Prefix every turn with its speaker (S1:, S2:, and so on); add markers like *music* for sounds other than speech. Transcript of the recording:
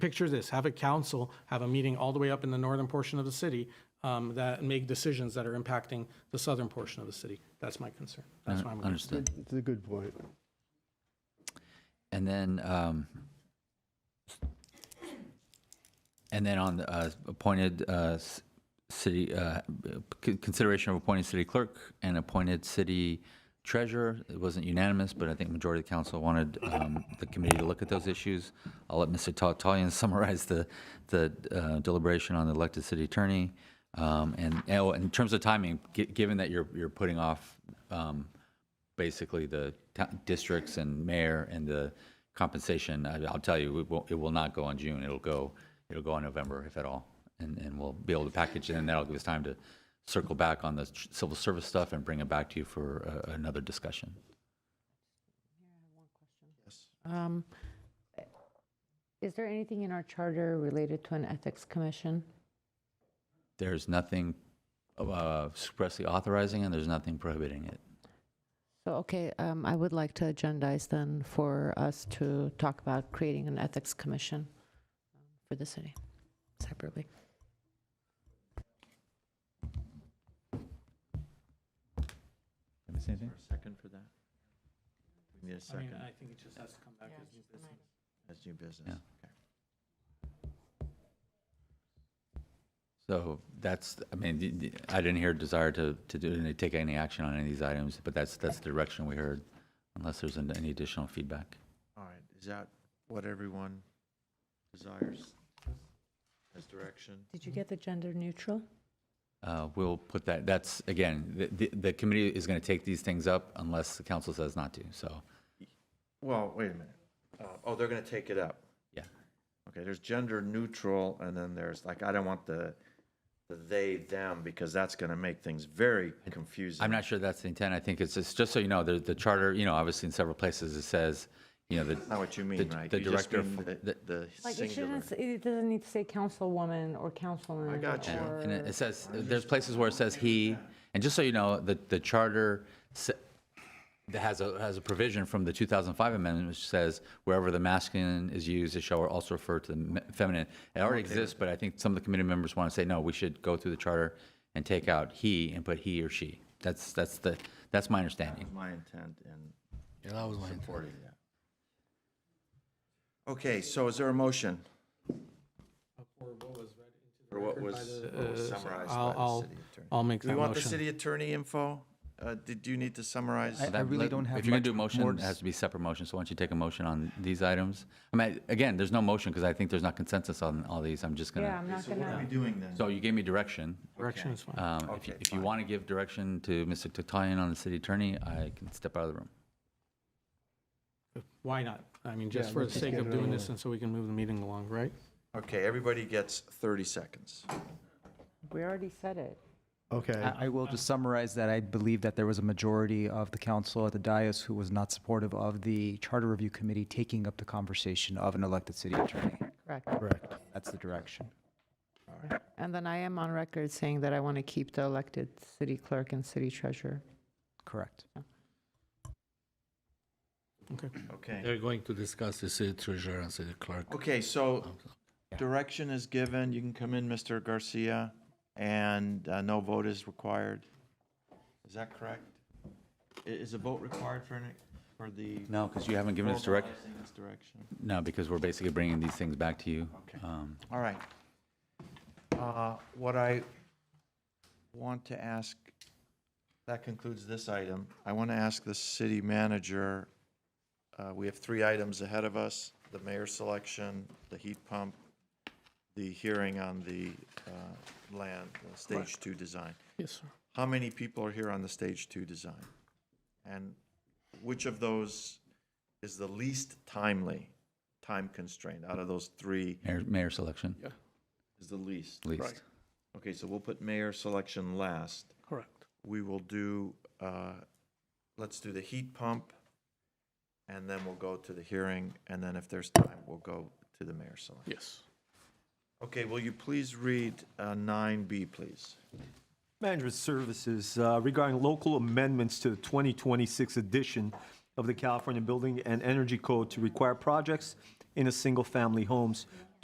S1: picture this, have a council, have a meeting all the way up in the northern portion of the city um, that make decisions that are impacting the southern portion of the city. That's my concern. That's why I'm. going
S2: Understood.
S3: It's a good point.
S2: And then, um, and then on the uh, appointed uh, s- city, uh, c- consideration of appointed city clerk and appointed city treasurer. It wasn't unanimous, but I think majority of the council wanted um, the committee to look at those issues. I'll let Mr. Tatalian *laughs* summarize the, the uh, deliberation on the elected city attorney. Um, And, oh, in terms of timing, gi- given that you're, you're putting off um, basically the to- districts and mayor and the compensation, I- I'll tell you, it will, it will not go on June. It'll go, it'll go in November, if at all. And, and we'll be able to package it, and that'll give us time to circle back on the tr- civil service stuff and bring it back to you for uh, another discussion.
S4: Um, Is there anything in our charter related to an ethics commission?
S2: There's nothing uh, expressly authorizing, and there's nothing prohibiting it.
S4: So, okay, um, I would like to agendize then for us to talk about creating an ethics commission um, for the city separately.
S5: Second for that? We need
S1: I
S5: a
S1: mean,
S5: second
S1: I think it just has to come back as new business.
S5: as new
S2: Yeah.
S5: business. Okay.
S2: So that's, I mean, the- the- I didn't hear a desire to, to do, to take any action on any of these items, but that's, that's the direction we heard, unless there's an- any additional feedback.
S5: All right, is that what everyone desires as direction?
S4: Did you get the gender neutral?
S2: Uh, We'll put that, that's, again, the- the, the committee is going to take these things up unless the council says not to, so,
S5: Well, wait a minute. Uh, Oh, they're going to take it up.
S2: yeah.
S5: Okay, there's gender neutral, and then there's, like, I don't want the the they, them, because that's going to make things very confusing.
S2: I'm not sure that's the intent, I think it's, just just so you know, the, the charter, you know, obviously in several places it says, you know, the.
S5: Not what you mean,
S2: the-
S5: right?
S2: The
S5: You just
S2: director,
S5: mean
S2: for-
S5: the-
S2: the-
S5: The
S4: Like, it
S5: singular.
S4: shouldn't, s- it doesn't need to say councilwoman or councilman.
S5: got you.
S4: or-
S2: And it it says, there's places where it says he, and just so you know, the, the charter sa- that has a, has a provision from the 2005 amendment which says wherever the masculine is used, it shall also refer to the me- feminine. It already exists, but I think some of the committee members want to say, no, we should go through the charter and take out he and put he or she. That's, that's the, that's my understanding.
S5: My intent in
S6: Yeah, that was my intent.
S5: supporting that. Okay, so is there a motion? Or what was, what was summarized by
S1: Uh, I'll,
S5: the
S1: I'll,
S5: city attorney?
S1: I'll make
S5: Do we
S1: that
S5: want the
S1: motion.
S5: city attorney info? Uh, Did you need to summarize?
S6: I-
S2: That-
S6: really
S2: let-
S6: don't have
S2: If you're going to do a
S6: much
S2: motion,
S6: more
S2: it
S6: to s-
S2: has to be separate motion, so why don't you take a motion on these items? I mean, again, there's no motion because I think there's not consensus on all these. I'm just going
S4: Yeah,
S2: to,
S4: I'm not
S5: So what are
S4: gonna,
S5: we doing then?
S2: so you gave me direction.
S1: Direction is fine.
S2: Um, if you,
S5: Okay,
S2: if you
S5: fine.
S2: want to give direction to Mr. Tatalian on the city attorney, I can step out of the room.
S1: Why not? I mean, just
S3: Yeah,
S1: for the
S3: let's just
S1: sake
S3: get
S1: of
S3: it
S1: doing
S3: over
S1: this
S3: with.
S1: and so we can move the meeting along, right?
S5: Okay, everybody gets 30 seconds.
S4: we already said it.
S3: Okay.
S6: I I will just summarize that I believe that there was a majority of the council at the dais who was not supportive of the charter review committee taking up the conversation of an elected city attorney.
S4: Correct.
S3: Correct.
S6: That's the direction.
S4: And then I am on record saying that I want to keep the elected city clerk and city treasurer.
S6: Correct.
S1: Okay.
S5: Okay.
S6: They're going to discuss the city treasurer and city clerk.
S5: Okay, so direction is given. You can come in, Mr. Garcia, and uh, no vote is required. Is that correct? I- Is a vote required for, any- for the?
S2: No, because you haven't given us direct,
S5: formalizing this direction?
S2: no, because we're basically bringing these things back to you.
S5: Okay.
S2: Um,
S5: All right. Uh, What I want to ask, that concludes this item. I want to ask the city manager, uh, we have three items ahead of us, the mayor selection, the heat pump, the hearing on the uh, land, the stage two design.
S1: Yes, sir.
S5: How many people are here on the stage two design? And which of those is the least timely, time constraint out of those three
S2: Mayor, mayor selection,
S5: is the least?
S2: at least.
S5: Okay, so we'll put mayor selection last.
S1: Correct.
S5: We will do, uh, let's do the heat pump, and then we'll go to the hearing, and then if there's time, we'll go to the mayor selection.
S1: Yes.
S5: Okay, will you please read uh, nine B, please?
S7: Management Services uh, regarding local amendments to the 2026 edition of the California Building and Energy Code to require projects in a single-family homes